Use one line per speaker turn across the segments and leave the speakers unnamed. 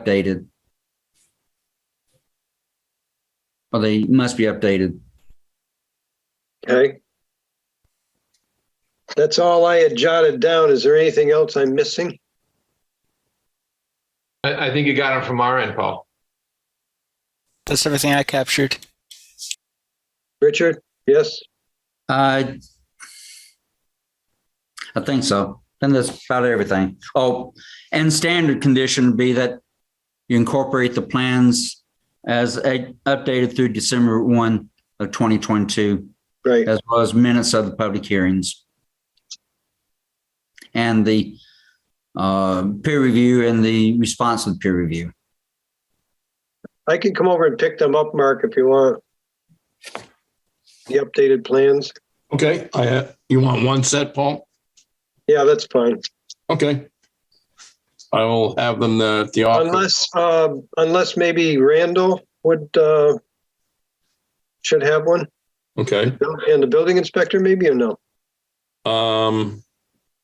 updated. Or they must be updated.
Okay. That's all I had jotted down. Is there anything else I'm missing?
I, I think you got it from our end, Paul.
That's everything I captured.
Richard? Yes?
I Uh, I think so. And that's about everything. Oh, and standard condition would be that you incorporate the plans as a- updated through December 1 of 2022,
Right.
as well as minutes of the public hearings. And the uh, peer review and the response to the peer review.
I can come over and pick them up, Mark, if you want. The updated plans.
Okay, I, ha- you want one set, Paul?
Yeah, that's fine.
Okay. I will have them uh, at the office.
Unless, uh, unless maybe Randall would, uh, should have one
Okay,
and the building inspector maybe or no?
um,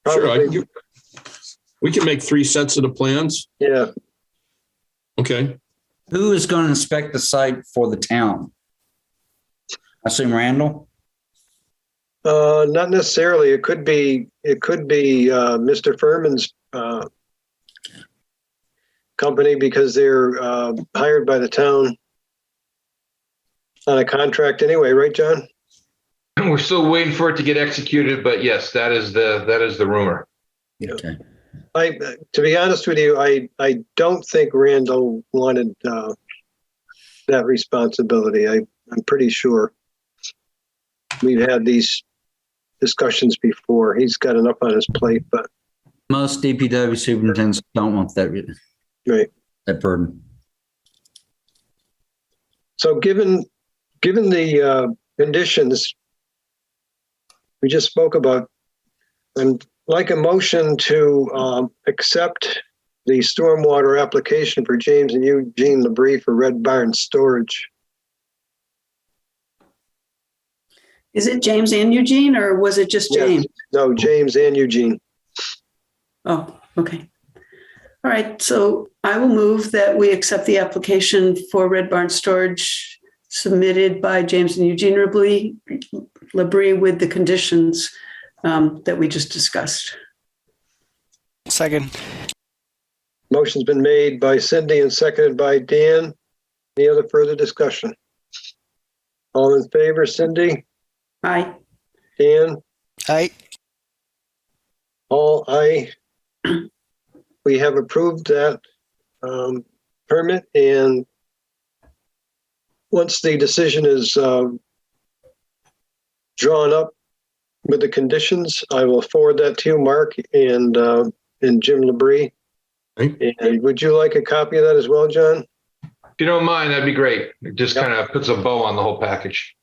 sure, I can
Probably.
give- we can make three sets of the plans.
Yeah,
Okay,
Who is going to inspect the site for the town? I assume Randall?
uh, not necessarily. It could be, it could be, uh, Mr. Furman's, uh, company because they're, uh, hired by the town on a contract anyway, right, John?
We're still waiting for it to get executed, but yes, that is the, that is the rumor.
Yeah.
Okay.
I, to be honest with you, I, I don't think Randall wanted, uh, that responsibility. I, I'm pretty sure. We've had these discussions before. He's got enough on his plate, but
Most DPW superintendents don't want that, re-
Right.
that burden.
so given, given the, uh, conditions we just spoke about, and like a motion to, um, accept the stormwater application for James and Eugene Labrie for Red Barn Storage.
Is it James and Eugene, or was it just
Yes.
James?
No, James and Eugene.
Oh, okay. All right, so I will move that we accept the application for Red Barn Storage submitted by James and Eugene Labrie, Labrie with the conditions um, that we just discussed.
Second.
Motion's been made by Cindy and seconded by Dan. Any other further discussion? All in favor, Cindy,
Aye.
Dan,
Aye.
all aye. We have approved that um, permit and once the decision is um, drawn up with the conditions, I will forward that to you, Mark and, uh, and Jim Labrie.
Okay.
And would you like a copy of that as well, John?
If you don't mind, that'd be great. It just
Yep.
kind of puts a bow on the whole package.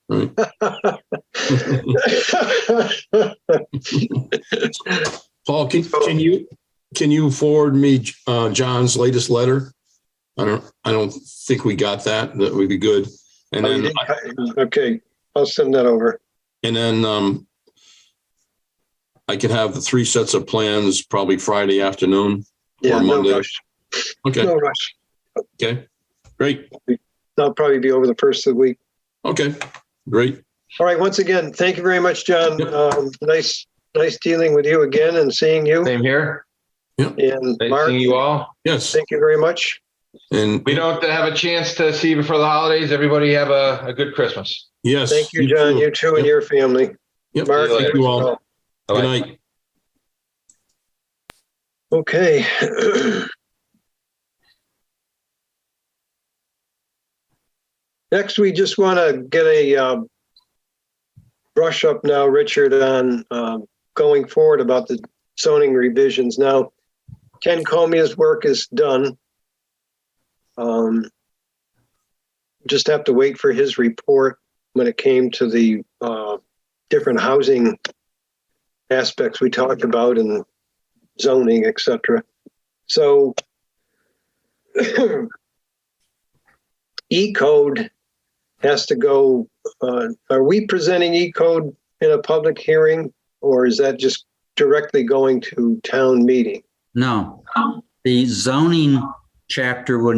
Paul, can, can you, can you forward me, uh, John's latest letter? I don't, I don't think we got that. That would be good. And
Oh, you
then,
did cut- Okay, I'll send that over.
and then, um, I could have the three sets of plans probably Friday afternoon.
Yeah, no
Monday.
rush,
Okay,
no rush.
okay, great.
That'll probably be over the first of the week.
Okay, great.
All right, once again, thank you very much, John.
Yep.
Um, Nice, nice dealing with you again and seeing you.
Same here.
And
Nice
Mark,
seeing you all.
Yes,
thank you very much.
and
We don't have a chance to see you before the holidays. Everybody have a, a good Christmas.
yes.
Thank you, John,
too.
you too and
Yep.
your family.
Yep,
Mark,
thank you all. Good
Bye-bye.
night.
Okay. Next, we just want to get a um, brush up now, Richard, on um, going forward about the zoning revisions. Now, Ken Comia's work is done. Um, Just have to wait for his report when it came to the uh, different housing aspects we talked about and zoning, et cetera. So E code has to go, uh, are we presenting E code in a public hearing? Or is that just directly going to town meeting?
No, the zoning chapter would